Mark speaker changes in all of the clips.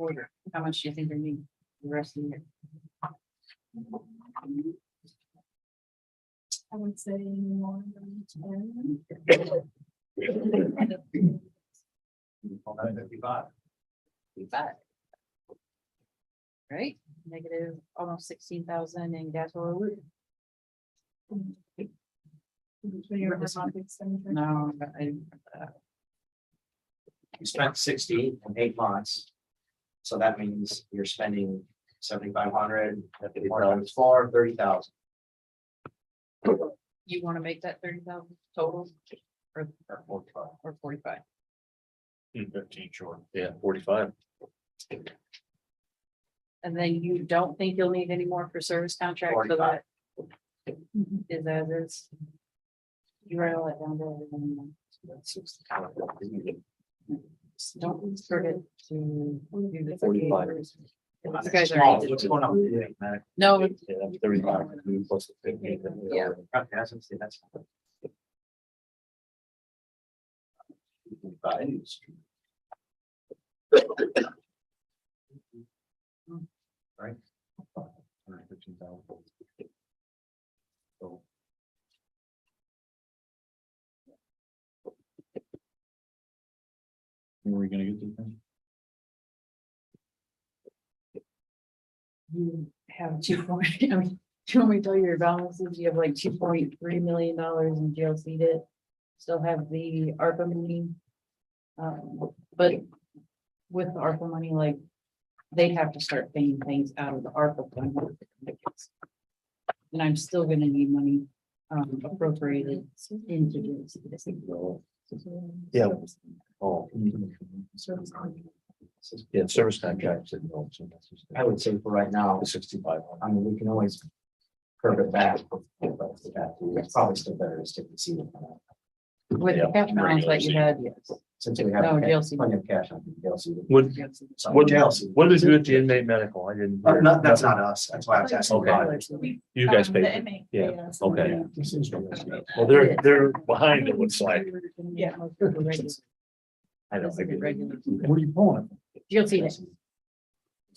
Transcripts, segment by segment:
Speaker 1: quarter, how much do you think they need the rest of the year?
Speaker 2: I would say more than ten.
Speaker 1: Fifty-five. Right, negative almost sixteen thousand in gas oil. lube.
Speaker 2: Between your robotic expenditure.
Speaker 1: No, I, uh,
Speaker 3: You spent sixty in eight months. So that means you're spending seventy-five hundred, four times four, thirty thousand.
Speaker 1: you wanna make that thirty thousand total? Or, or forty-five?
Speaker 3: Fifteen short.
Speaker 4: Yeah, forty-five.
Speaker 1: And then you don't think you'll need any more for service contract so that is as is? You write all that down there. and then Don't sort it to. do the
Speaker 4: 45.
Speaker 1: 38. You guys are-
Speaker 3: What's going on? with you, man?
Speaker 1: No, it's-
Speaker 4: Yeah, that's thirty-five. plus the 50, then we
Speaker 1: Yeah.
Speaker 4: already-
Speaker 3: Okay, I was gonna say, that's. Right? Hundred fifteen thousand. So.
Speaker 4: Where Are we gonna get this? from?
Speaker 1: you have two point, I mean, do you want me to tell you your balances? You have like two point three million dollars in jail seated. Still have the ARPA money. Um, but with the ARPA money, like, they'd have to start paying things out of the ARPA fund. And I'm still gonna need money um appropriated into jail seated.
Speaker 4: No. Yeah. Oh.
Speaker 2: Service contract.
Speaker 4: Yeah, service contracts. and all, so that's just-
Speaker 3: I would say for right now,
Speaker 4: The sixty-five.
Speaker 3: I mean, we can always curb it back. but It's probably still better to stick to see it.
Speaker 1: With the
Speaker 4: Yeah,
Speaker 1: cash balance that you
Speaker 4: regular
Speaker 1: had, yes.
Speaker 3: Since we
Speaker 1: No,
Speaker 3: have
Speaker 1: jail seated.
Speaker 3: plenty of cash on the DLC.
Speaker 4: What,
Speaker 1: jail seated.
Speaker 3: So,
Speaker 4: What-
Speaker 3: jail seated.
Speaker 4: what did you do at the inmate medical? I didn't.
Speaker 3: Uh, no, that's not us. That's why I was asking.
Speaker 4: Okay.
Speaker 3: about it.
Speaker 2: We-
Speaker 4: You guys
Speaker 2: um,
Speaker 4: paid.
Speaker 2: the
Speaker 4: for it.
Speaker 2: inmate
Speaker 4: Yeah,
Speaker 2: paid us.
Speaker 4: okay.
Speaker 3: Yeah, this is what it's about.
Speaker 4: Well, they're, they're behind it, it's like,
Speaker 2: Yeah.
Speaker 4: I don't
Speaker 1: This is
Speaker 4: think.
Speaker 1: the regular.
Speaker 4: What are you pulling?
Speaker 1: Jail seated.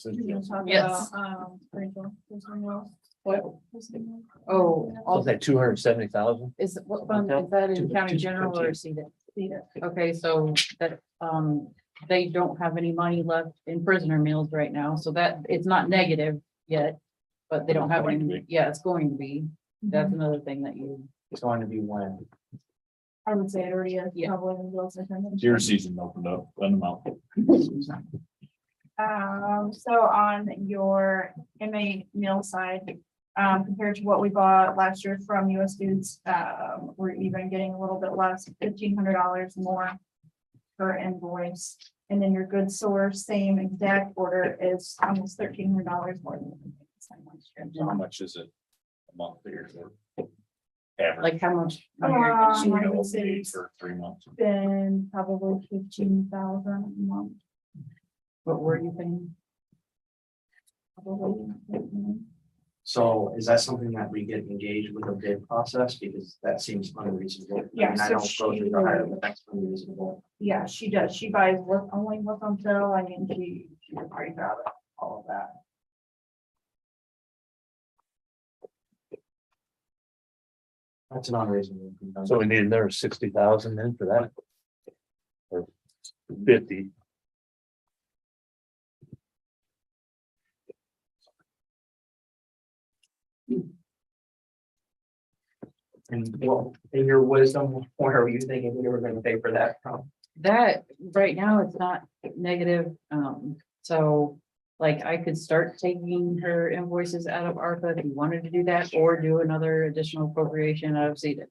Speaker 2: You can talk
Speaker 1: Yes.
Speaker 2: about, um, rental, personnel,
Speaker 1: What?
Speaker 2: personnel.
Speaker 1: Oh,
Speaker 4: Was
Speaker 1: all
Speaker 4: that two hundred and seventy thousand?
Speaker 1: Is, what fund, is that in county general or CEDA? Okay, so that, um, they don't have any money left in prisoner meals right now, so that, it's not negative yet. But they don't have any, yeah, it's going to be, that's another thing that you,
Speaker 3: It's going to be when.
Speaker 2: I would say it already is.
Speaker 1: Yeah.
Speaker 2: probably in bills and payments.
Speaker 4: Deer season opened up, run them out.
Speaker 2: Um, so on your inmate meal side, um, compared to what we bought last year from US Foods, um, we're even getting a little bit less, fifteen hundred dollars more per invoice. And then your good source, same exact order is almost thirteen hundred dollars more than the same last year.
Speaker 4: How much is it a month there? Average.
Speaker 1: like, how much? money are you gonna-
Speaker 2: Um, I would say it's
Speaker 4: For three months.
Speaker 2: been probably fifteen thousand a month,
Speaker 1: What were you paying?
Speaker 2: probably.
Speaker 3: So is that something that we get engaged with a bid process? Because that seems unreasonable. I mean,
Speaker 2: Yeah,
Speaker 3: I
Speaker 2: so
Speaker 3: don't go through the
Speaker 2: she-
Speaker 3: higher, but that's unreasonable.
Speaker 2: Yeah, she does. She buys with only with until I mean, she, she worries about it, all of that.
Speaker 3: That's an unreasonable.
Speaker 4: So we need another sixty thousand then for that? Or fifty?
Speaker 3: And well, in your wisdom, where were you thinking we were gonna pay for that from?
Speaker 1: That, right now, it's not negative, um, so, like, I could start taking her invoices out of ARPA if you wanted to do that, or do another additional appropriation out of CEDA.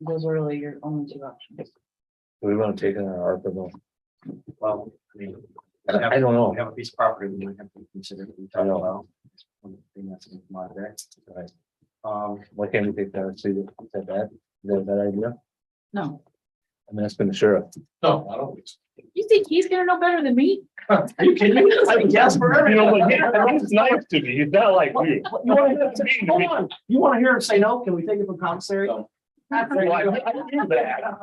Speaker 1: Those are really your only two options.
Speaker 4: Do we want to take it on our ARPA loan?
Speaker 3: Well, I mean.
Speaker 4: I don't know.
Speaker 3: We have a piece of property we might have to consider. that We
Speaker 4: I
Speaker 3: talked
Speaker 4: know.
Speaker 3: about. One thing that's in my there.
Speaker 4: Right.
Speaker 3: Um,
Speaker 4: Why can't we take that, and see, that- is that bad? Is that a bad idea?
Speaker 1: No,
Speaker 4: I mean, that's been the sheriff.
Speaker 3: no, I don't. think so.
Speaker 1: you think he's gonna know better than me?
Speaker 3: Are you kidding me? I guess for
Speaker 4: You know, but he-
Speaker 3: everything.
Speaker 4: he's nice to me. He's not like me.
Speaker 3: What- You wanna hold on. You wanna hear him say no? Can we take it from commissary?
Speaker 4: No. Well, I- I do that.